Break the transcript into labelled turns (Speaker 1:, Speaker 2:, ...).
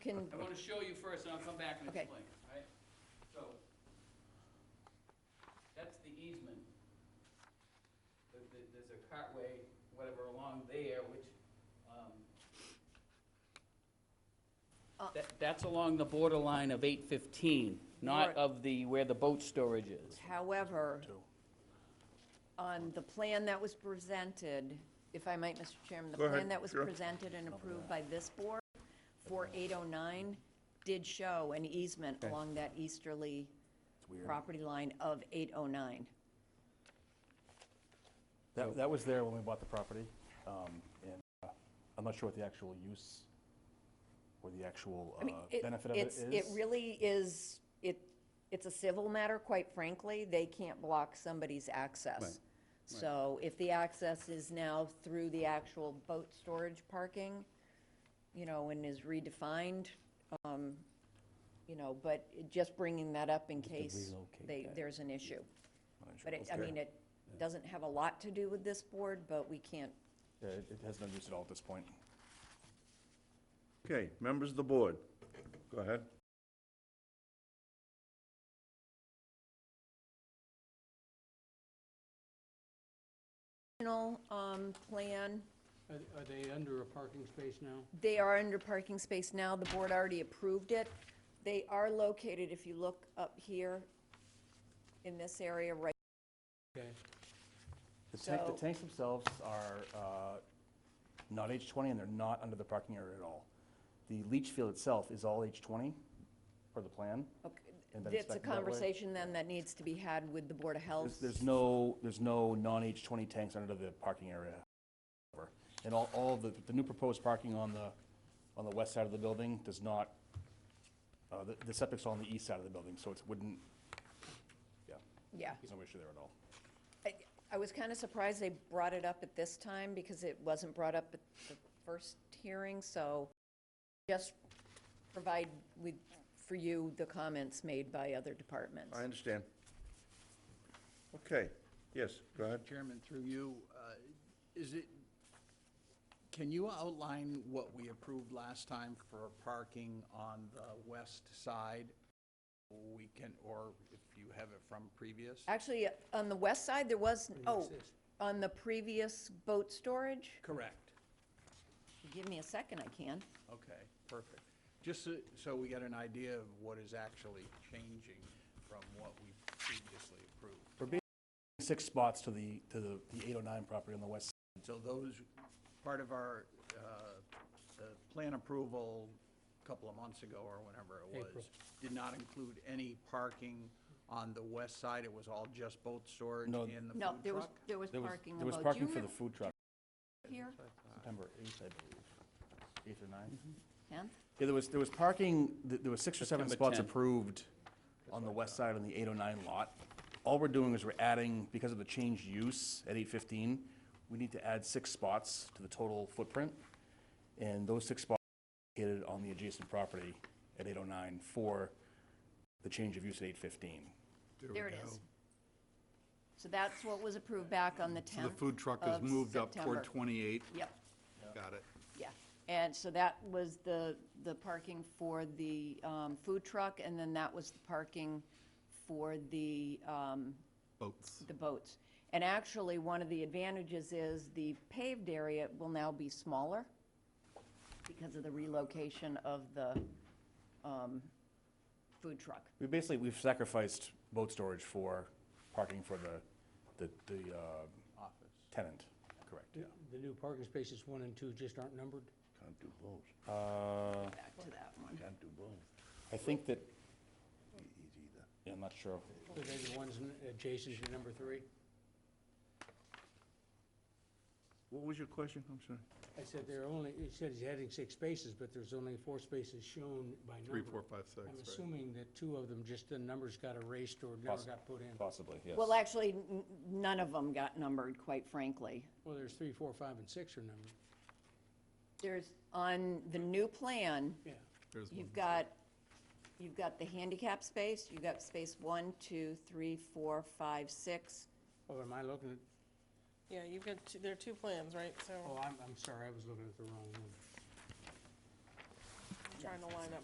Speaker 1: gonna show you first, and I'll come back and
Speaker 2: Okay.
Speaker 1: explain, all right? So, that's the easement. There- there- There's a cartway, whatever, along there, which, um,
Speaker 2: Uh.
Speaker 1: that- that's along the borderline of eight fifteen, not
Speaker 2: Right.
Speaker 1: of the, where the boat storage is.
Speaker 2: However, on the plan that was presented, if I might, Mr. Chairman, the
Speaker 3: Go ahead,
Speaker 2: plan that was
Speaker 3: sure.
Speaker 2: presented and approved by this board for 809 did show an easement along that easterly property line of 809.
Speaker 4: That, that was there when we bought the property, um, and uh, I'm not sure what the actual use or the actual
Speaker 2: I mean,
Speaker 4: uh,
Speaker 2: it-
Speaker 4: benefit of it
Speaker 2: it's-
Speaker 4: is.
Speaker 2: It really is, it, it's a civil matter, quite frankly. They can't block somebody's access. So if the access is now through the actual boat storage parking, you know, and is redefined, um, you know, but it- just bringing that up in case they, there's an issue. But it, I mean, it doesn't have a lot to do with this board, but we can't,
Speaker 4: Yeah, It it has no use at all at this point.
Speaker 3: Okay, members of the board, go ahead.
Speaker 2: original, um, plan
Speaker 5: Are are they under a parking space now?
Speaker 2: They are under parking space now, the board already approved it. They are located, if you look up here, in this area, right,
Speaker 5: Okay,
Speaker 4: The tank, the
Speaker 2: So-
Speaker 4: tanks themselves are uh, not H20, and they're not under the parking area at all. The leach field itself is all H20 for the plan.
Speaker 2: okay.
Speaker 4: And then it's
Speaker 2: It's a
Speaker 4: back that way?
Speaker 2: conversation then that needs to be had with the Board of Health.
Speaker 4: There's, there's no, there's no non-H20 tanks under the parking area. And all, all the, the new proposed parking on the, on the west side of the building does not, uh, the, the septic's on the east side of the building, so it wouldn't, yeah,
Speaker 2: Yeah.
Speaker 4: there's no issue there at all.
Speaker 2: I- I was kind of surprised they brought it up at this time, because it wasn't brought up at the first hearing, so just provide with, for you, the comments made by other departments.
Speaker 3: I understand. Okay, yes, go ahead.
Speaker 6: Chairman, through you, uh, is it, can you outline what we approved last time for parking on the west side? We can, or if you have it from previous?
Speaker 2: Actually, on the west side, there was, oh, on the previous boat storage?
Speaker 6: Correct.
Speaker 2: Give me a second, I can.
Speaker 6: Okay, perfect. Just so- so we get an idea of what is actually changing from what we previously approved.
Speaker 4: Six spots to the, to the the 809 property on the west.
Speaker 6: So those, part of our, uh, the plan approval a couple of months ago or whenever it was, did not include any parking on the west side. It was all just boat storage and
Speaker 4: No.
Speaker 6: the food
Speaker 2: No, there was,
Speaker 6: truck?
Speaker 2: there was
Speaker 4: There was,
Speaker 2: parking
Speaker 4: there was
Speaker 2: about, do you
Speaker 4: parking for the
Speaker 2: remember
Speaker 4: food truck,
Speaker 2: here,
Speaker 4: September 8th, I believe, 8th or 9th.
Speaker 2: Ken?
Speaker 4: Yeah, there was, there was parking, th- there was six or seven
Speaker 1: September
Speaker 4: spots
Speaker 1: 10th.
Speaker 4: approved on the west side on the 809 lot. All we're doing is we're adding, because of the changed use at 815, we need to add six spots to the total footprint. And those six spots are located on the adjacent property at 809 for the change of use at 815.
Speaker 2: There it is. So that's what was approved back on the 10th
Speaker 7: The food truck is
Speaker 2: of
Speaker 7: moved up toward
Speaker 2: September.
Speaker 7: 28.
Speaker 2: Yep,
Speaker 7: Got it.
Speaker 2: yeah. And so that was the, the parking for the um, food truck, and then that was the parking for the, um,
Speaker 7: Boats.
Speaker 2: the boats. And actually, one of the advantages is the paved area will now be smaller because of the relocation of the um, food truck.
Speaker 4: We basically, we've sacrificed boat storage for parking for the, the, the uh, tenant, correct, yeah.
Speaker 5: the new parking spaces one and two just aren't numbered?
Speaker 3: Can't do both,
Speaker 4: Uh,
Speaker 2: Back to that one.
Speaker 3: can't do both.
Speaker 4: I think that, yeah, I'm not sure.
Speaker 5: Are they the ones n- adjacent to number three?
Speaker 3: What was your question? I'm sorry.
Speaker 5: I said there are only, he said he's adding six spaces, but there's only four spaces shown by number.
Speaker 7: Three, four, five, six,
Speaker 5: I'm
Speaker 7: right.
Speaker 5: assuming that two of them, just the numbers got erased or never
Speaker 4: Possi-
Speaker 5: got put in.
Speaker 4: Possibly, yes.
Speaker 2: Well, actually, n- none of them got numbered, quite frankly.
Speaker 5: Well, there's three, four, five, and six are numbered.
Speaker 2: There's, on the new plan,
Speaker 5: Yeah.
Speaker 7: There's one.
Speaker 2: you've got, you've got the handicap space, you've got space one, two, three, four, five, six.
Speaker 5: Oh, am I looking at,
Speaker 8: Yeah, you've got, two- there are two plans, right? So
Speaker 5: oh, I'm, I'm sorry, I was looking at the wrong one.
Speaker 8: I'm trying to line up